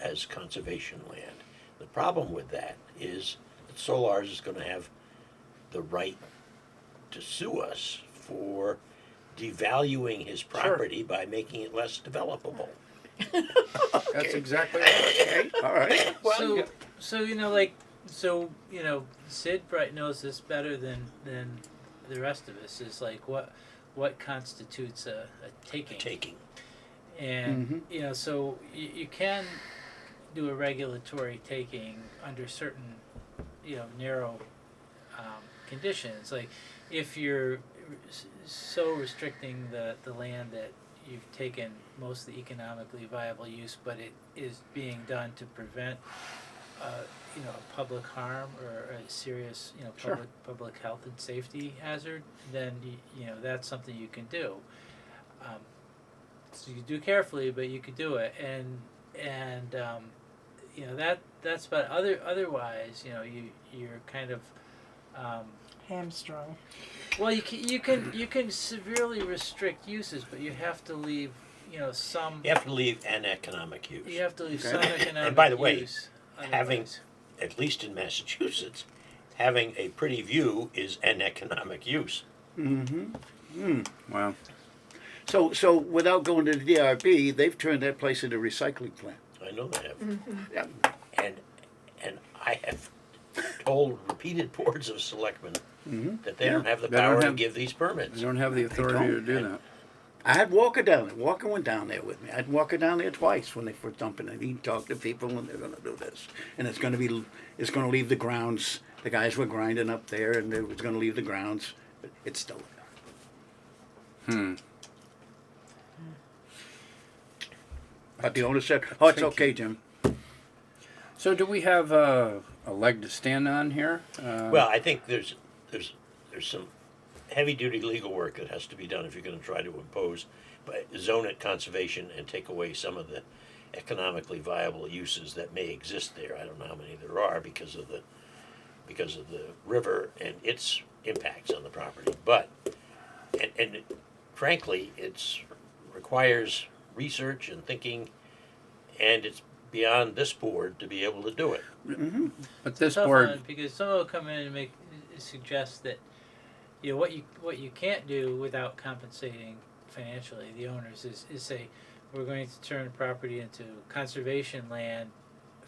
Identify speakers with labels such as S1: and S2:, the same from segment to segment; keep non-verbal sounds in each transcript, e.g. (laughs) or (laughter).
S1: as conservation land. The problem with that is that Solars is gonna have the right to sue us for devaluing his property by making it less developable.
S2: That's exactly right. Okay, all right.
S3: so, so you know, like, so you know, Sid Bright knows this better than than the rest of us. Is like what what constitutes a, a taking,
S1: Taking,
S3: and
S2: Mhm.
S3: you know, so you, you can do a regulatory taking under certain you know narrow um, conditions. Like if you're r- s- so restricting the the land that you've taken most of the economically viable use, but it is being done to prevent. Uh, you know, a public harm or a serious, you know,
S2: Sure.
S3: public public health and safety hazard. Then you, you know that's something you can do. Um, so you do carefully, but you could do it, and and um, you know that that's about other otherwise, you know, you you're kind of um,
S4: hamstrung.
S3: well, you can you can you can severely restrict uses, but you have to leave you know some
S1: you have to leave an economic use.
S3: you have to leave
S2: Okay.
S3: some
S1: And
S3: economic
S1: by the way,
S3: use
S1: having-
S3: otherwise.
S1: At least in Massachusetts, having a pretty view is an economic use.
S2: Mm-hmm. Mm. Wow. So, so without going to the DRB, they've turned that place into a recycling plant.
S1: I know they have.
S2: Yeah.
S1: And, and I have told repeated boards of selectmen that they don't
S2: Yeah.
S1: have the
S5: Mm-hmm. They don't
S1: power to
S5: have-
S1: give these
S5: They
S1: permits.
S5: don't have the authority to
S2: don't.
S5: do that.
S2: I had Walker down there. Walker went down there with me. I had Walker down there twice when they were dumping it. He talked to people, and they're going to do this, and it's going to be, it's going to leave the grounds. The guys were grinding up there, and it was going to leave the grounds. But it's still there. Hmm. But the owner said, "Oh, it's
S5: Thank
S2: okay, Jim."
S5: So do we have uh, a leg to stand on here? Uh,
S1: Well, I think there's, there's, there's some heavy-duty legal work that has to be done if you're gonna try to impose, but zone it conservation and take away some of the economically viable uses that may exist there. I don't know how many there are because of the, because of the river and its impacts on the property, but, and, and frankly, it's, requires research and thinking, and it's beyond this board to be able to do it.
S5: but this
S3: tough
S5: board,
S3: one because someone will come in and make suggest that you know what you what you can't do without compensating financially the owners is is say we're going to turn property into conservation land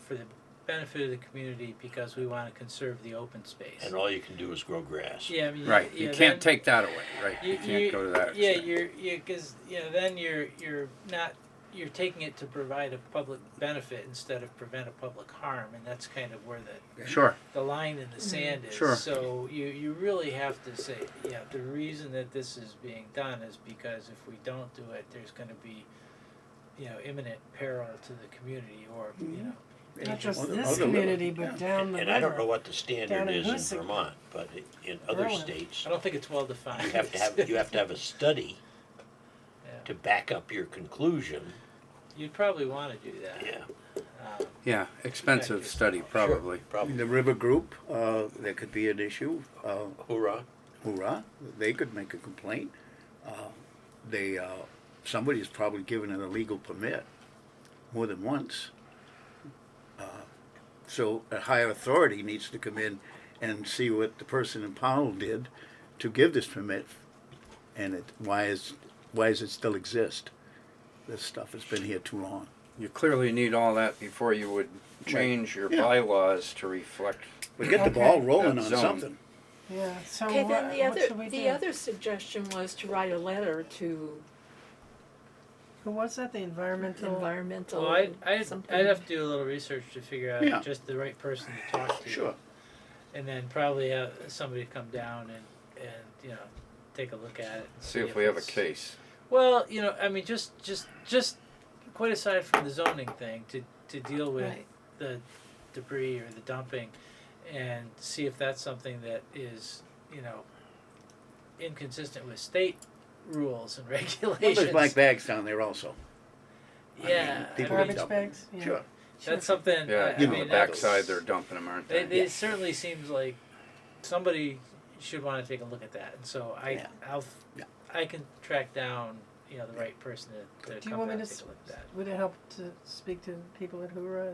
S3: for the benefit of the community because we want to conserve the open space.
S1: And all you can do is grow grass.
S3: yeah, I mean,
S5: right?
S3: Yeah,
S5: you
S3: then-
S5: can't take that away, right? You, can't go to that.
S3: Yeah,
S5: extent.
S3: you're you because you know then you're you're not you're taking it to provide a public benefit instead of prevent a public harm, and that's kind of where the
S5: Sure.
S3: the line in the sand is.
S5: Sure.
S3: So you, you really have to say, yeah, the reason that this is being done is because if we don't do it, there's going to be, you know, imminent peril to the community or, you know.
S4: Not just
S2: Other-
S4: this
S2: other
S4: community,
S2: river,
S4: but
S2: yeah.
S4: down
S1: And,
S4: the river.
S1: and I don't know what the
S4: Down
S1: standard
S4: in
S1: is in
S4: Hoosick.
S1: Vermont, but i- in other
S4: Berlin.
S1: states,
S3: I don't think it's well defined.
S1: you have to have, you have to have a study
S3: Yeah.
S1: to back up your conclusion,
S3: (laughs) You'd probably want to do that.
S1: yeah.
S3: Um,
S5: Yeah, expensive study probably.
S1: Sure,
S2: In
S1: Probably,
S2: the river group, uh, there could be an issue. Uh,
S1: hoorah,
S2: Hoorah! They could make a complaint. Uh, they uh, somebody's probably given an illegal permit more than once. Uh, so a higher authority needs to come in and see what the person in Powell did to give this permit, and it why is why does it still exist? This stuff has been here too long.
S5: You clearly need all that before you would change your
S2: Yeah.
S5: bylaws to reflect.
S2: We get the ball
S4: Okay.
S2: rolling
S5: That
S2: on
S5: zone.
S2: something.
S4: Yeah, so
S6: Okay,
S4: what,
S6: then the
S4: what should
S6: other,
S4: we
S6: the
S4: do?
S6: other suggestion was to write a letter to
S4: Who was that? The environmental.
S6: environmental.
S3: well, I'd, I'd,
S6: something.
S3: I'd have to do a little research to figure out
S2: Yeah.
S3: just the right person to talk to.
S2: Sure.
S3: And then probably have somebody come down and, and you know, take a look at it. and
S5: See if we have a
S3: it's-
S5: case.
S3: Well, you know, I mean, just just just quite aside from the zoning thing, to to deal with
S6: Right.
S3: the debris or the dumping, and see if that's something that is you know inconsistent with state rules and (laughs)
S2: Well,
S3: regulations.
S2: there's black bags down there also.
S3: yeah, I
S2: people
S3: mean,
S4: Garbage
S2: dump.
S4: bags? Yeah.
S2: Sure.
S3: that's something.
S5: Yeah,
S3: I, I
S2: you
S5: on
S2: know,
S3: mean,
S5: the
S2: that's-
S5: backside they're dumping them, aren't
S3: It, it
S2: Yeah.
S3: certainly seems like somebody should want to take a look at that, and so I
S2: Yeah.
S3: I'll
S2: Yeah.
S3: I can track down you know the right person to, to
S4: Do you
S3: come
S4: want me
S3: back
S4: to
S3: and take a look at that.
S4: s- Would it help to speak to people at Hura